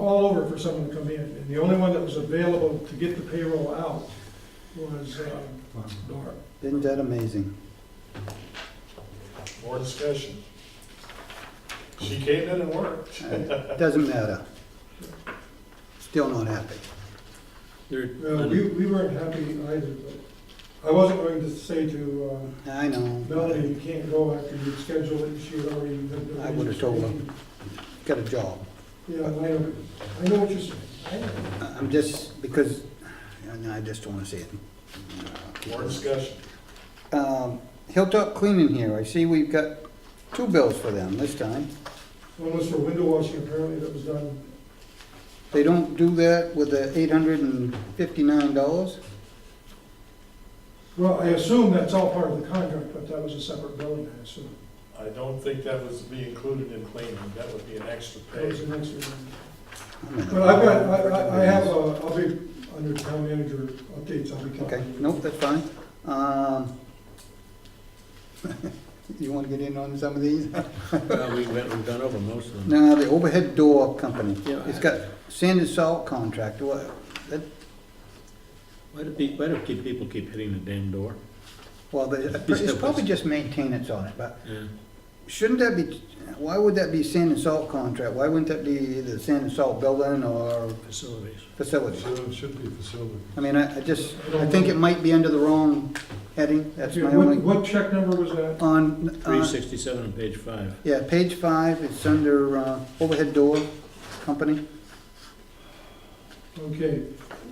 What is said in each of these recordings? all over for someone to come in, and the only one that was available to get the payroll out was um, Nora. Isn't that amazing? More discussion. She came in and worked. Uh, Doesn't matter. Still not happy. Uh, We, we weren't happy either, but I wasn't going to say to uh, I Melanie, know, you can't go after you'd scheduled it, she had already. been- I would've told them. got a job. Yeah, I know, I know what you're saying. I know. I- I'm just, because, and I just don't wanna see it. More discussion. Um, Hilltop Cleaning here, I see we've got two bills for them this time. One was for window washing, apparently that was done, They don't do that with the eight hundred and fifty-nine dollars? well, I assume that's all part of the contract, but that was a separate billing, I assume. I don't think that was to be included in cleaning. That would be an extra That pay. was an extra one. But I've got, I, I, I have, uh, I'll be, under town manager updates, I'll be talking. Okay, nope, that's fine. Um, You wanna get in on some of these? Well, we went, we've gone over most of them. Now, the overhead door company, Yeah. it's got sand and salt contract, what, that, Why do people, why do keep- people keep hitting the damn door? well, they- it's probably just maintenance on it, but Yeah. shouldn't that be, why would that be sand and salt contract? Why wouldn't that be either sand and salt building or Facilities. facility? It should be facility. I mean, I, I just, I think it might be under the wrong heading, that's Yeah, my what- only, What check number was that? on, Three uh, sixty-seven on page five. yeah, page five, it's under, uh, overhead door company. Okay,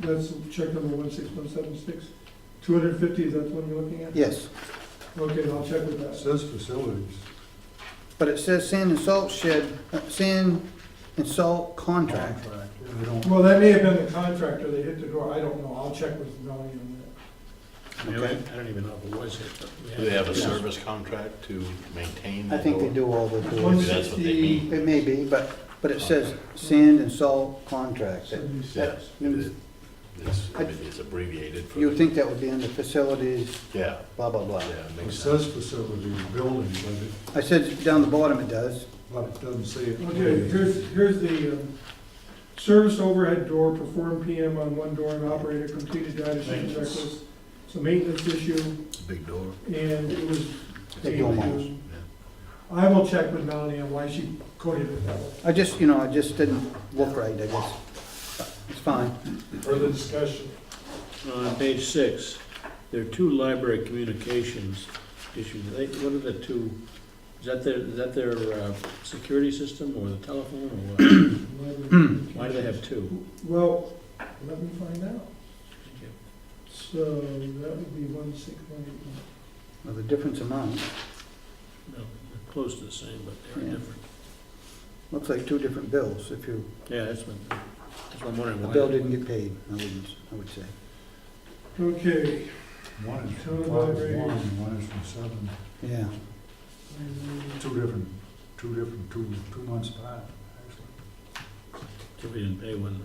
that's check number one six one seven six. Two hundred and fifty, is that the one you're looking at? Yes, Okay, I'll check with It that. says facilities. but it says sand and salt shed, uh, sand and salt contract. Yeah, They don't, Well, that may have been the contractor, they hit the door, I don't know, I'll check with Melanie on I mean, I I don't even know if it was hit, but. we Do they have a had- service contract to maintain I that think they door? do all the that. doors. One Maybe that's what they sixty, mean. It may be, but, but it says sand and salt contract. seventy-six. Yes, it is. It's, I mean, it's abbreviated for. You would think that would be under facilities, Yeah, blah, blah, blah. yeah, it it makes sense. says facilities, building, but it, I said down the bottom it does. but it doesn't say it. Okay, here's, here's the, um, service overhead door, perform PM on one door and operator, completed data sheet and Maintenance. checklist. It's a maintenance issue, It's a big door. and it was. They do them all. I will check with Melanie on why she coded it that way. I just, you know, I just didn't look right, I guess. But It's fine. Further discussion. On page six, there are two library communications issues. They, what are the two? Is that their, is that their, uh, security system or the telephone or what? Hmm. Why do they have two? Well, let me find out. Thank you. So that would be one six one eight one. Well, the difference amount, No, they're close to the same, but they're Yeah. different. looks like two different bills if you, Yeah, that's what, that's what I'm wondering. the why- bill didn't get paid, I wouldn't, I would say. Okay. One is Total from five, library. one, and one is from seven. Yeah, Two different, two different, two, two months back, actually. So we didn't pay one, one month.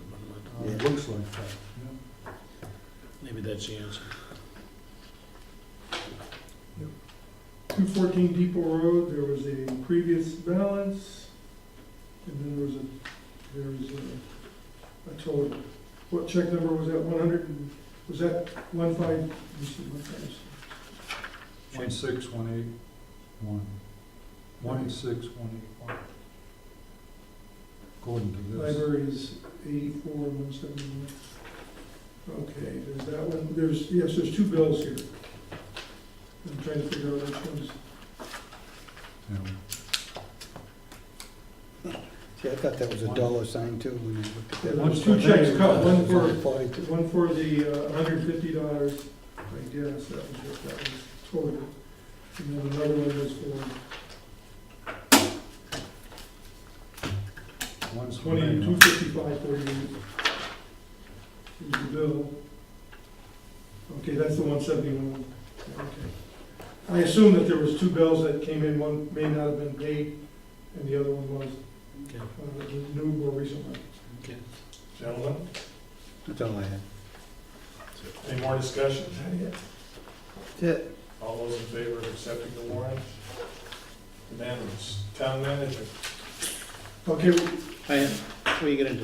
Uh, It Yeah. looks like that, yeah. Maybe that's the answer. Two fourteen Depot Road, there was a previous balance, and then there was a, there was a, a total. What check number was that, one hundred and, was that one five, you said one five, One six, one eight, one. One six, one eight, one. According to this. library is eighty-four, one seventy-one. Okay, there's that one, there's, yes, there's two bills here. I'm trying to figure out which ones. Yeah. see, I thought that was a dollar sign too when I looked at that. Yeah, There's two checks cut, one for Forty-two. One for the uh, hundred and fifty dollars, I guess, that was what that was total. And then another one was for One's from twenty, two Maine. fifty-five forty-eight. Is the bill. Okay, that's the one seventy-one, okay. I assume that there was two bills that came in, one may not have been paid, and the other one was, Okay, uh, the new, more recent one. okay. Gentlemen, That's all I had. any more discussion? Is that it? That's it. All those in favor of accepting the warrant? Unanimous. Town manager. Okay, I, before you get into